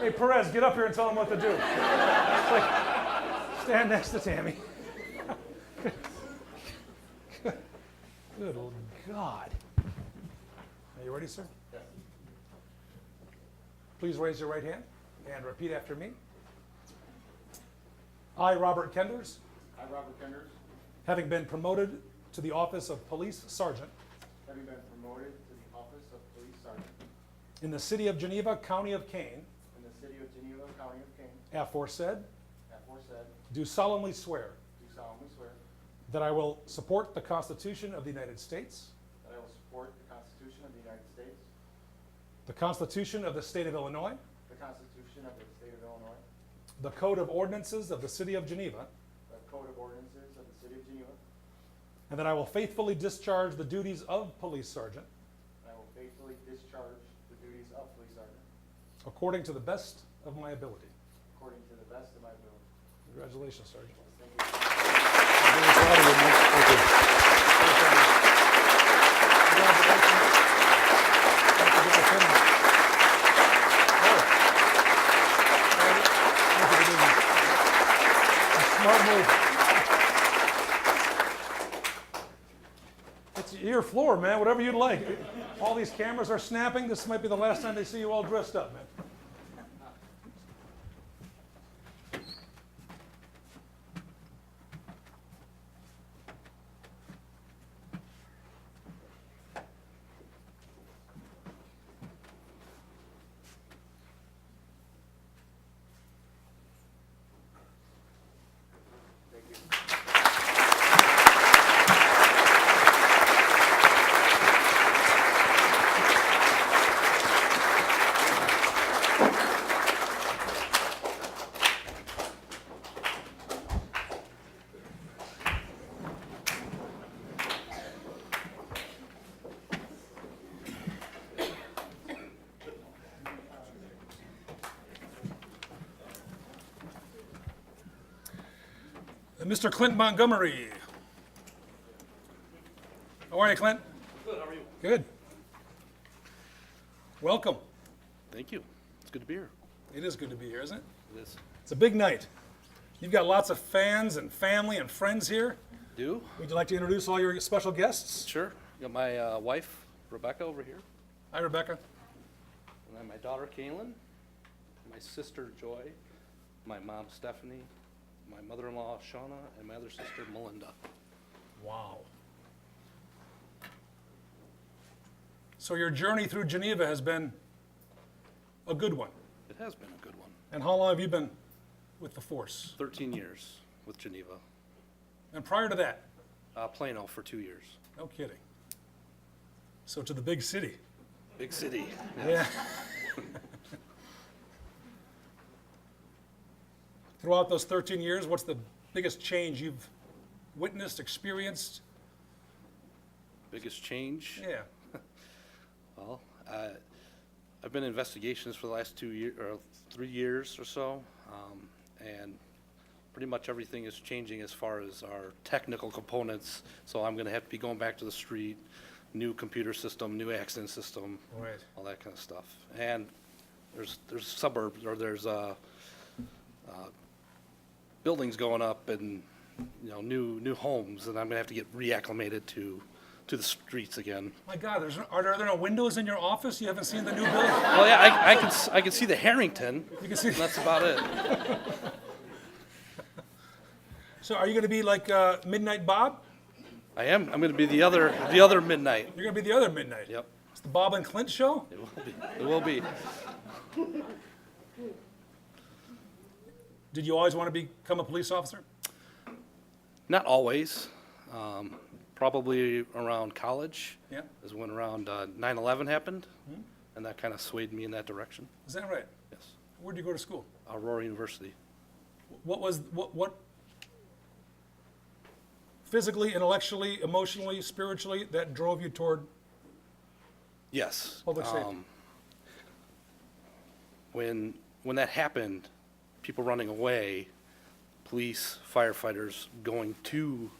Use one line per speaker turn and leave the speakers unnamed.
hey, Perez, get up here and tell him what to do. It's like, stand next to Tammy. Good Lord God. Are you ready, sir? Yes. Please raise your right hand and repeat after me. I, Robert Kenders,
I, Robert Kenders,
having been promoted to the office of Police Sergeant
having been promoted to the office of police sergeant
in the city of Geneva, county of Kane,
in the city of Geneva, county of Kane,
aforesaid,
aforesaid,
do solemnly swear
do solemnly swear
that I will support the Constitution of the United States,
that I will support the Constitution of the United States,
the Constitution of the state of Illinois,
the Constitution of the state of Illinois,
the Code of Ordinances of the city of Geneva,
the Code of Ordinances of the city of Geneva, and
and that I will faithfully discharge the duties of Police Sergeant
I will faithfully discharge the duties of police sergeant
according to the best of my ability.
according to the best of my ability.
Congratulations, Sergeant.
Thank you.
It's your floor, man, whatever you'd like. All these cameras are snapping. This might be the last time they see you all dressed up, man. Mr. Uh, Clint Montgomery. How are you, Clint? Good, how are you? Good. Welcome.
Thank you. It's good to be here.
It is good to be here, isn't it?
It is.
It's a big night. You've got lots of fans and family and friends here.
Do?
Would you like to introduce all your special guests?
Sure. Got my uh, wife, Rebecca, over here.
Hi, Rebecca.
And then my daughter, Kaylin. My sister, Joy. My mom, Stephanie. My mother in law, Shauna. And my other sister, Melinda.
Wow. So your journey through Geneva has been a good one.
It has been a good one.
And how long have you been with the force?
13 years with Geneva.
And prior to that,
Uh, Plano for two years.
No kidding. So to the big city.
Big city.
Yeah. Throughout those 13 years, what's the biggest change you've witnessed, experienced?
Biggest change.
Yeah.
Well, uh, I've been in investigations for the last two year, or three years or so, um, and pretty much everything is changing as far as our technical components. So I'm gonna have to be going back to the street, new computer system, new accident system,
Right.
all that kind of stuff. And there's, there's suburbs, or there's, uh, uh, buildings going up and, you know, new, new homes, and I'm gonna have to get reacclimated to, to the streets again.
My God, there's, are there, are there no windows in your office? You haven't seen the new building?
Well, yeah, I, I can, s- I can see the Harrington.
You can see.
and That's about it.
So are you going to be like uh, Midnight Bob?
I am, I'm gonna be the other, the other midnight.
You're going to be the other Midnight.
Yep,
It's the Bob and Clint show?
it will be, it will be.
Did you always want to become a police officer?
Not always. Um, probably around college.
Yeah. Mm-hmm.
Is when around, uh, nine eleven happened, and that kinda swayed me in that direction.
Is that right?
Yes.
Where'd you go to school?
Aurora University.
What was what what physically, intellectually, emotionally, spiritually that drove you toward
Yes.
Public safety.
um, When, when that happened, people running away, police, firefighters going to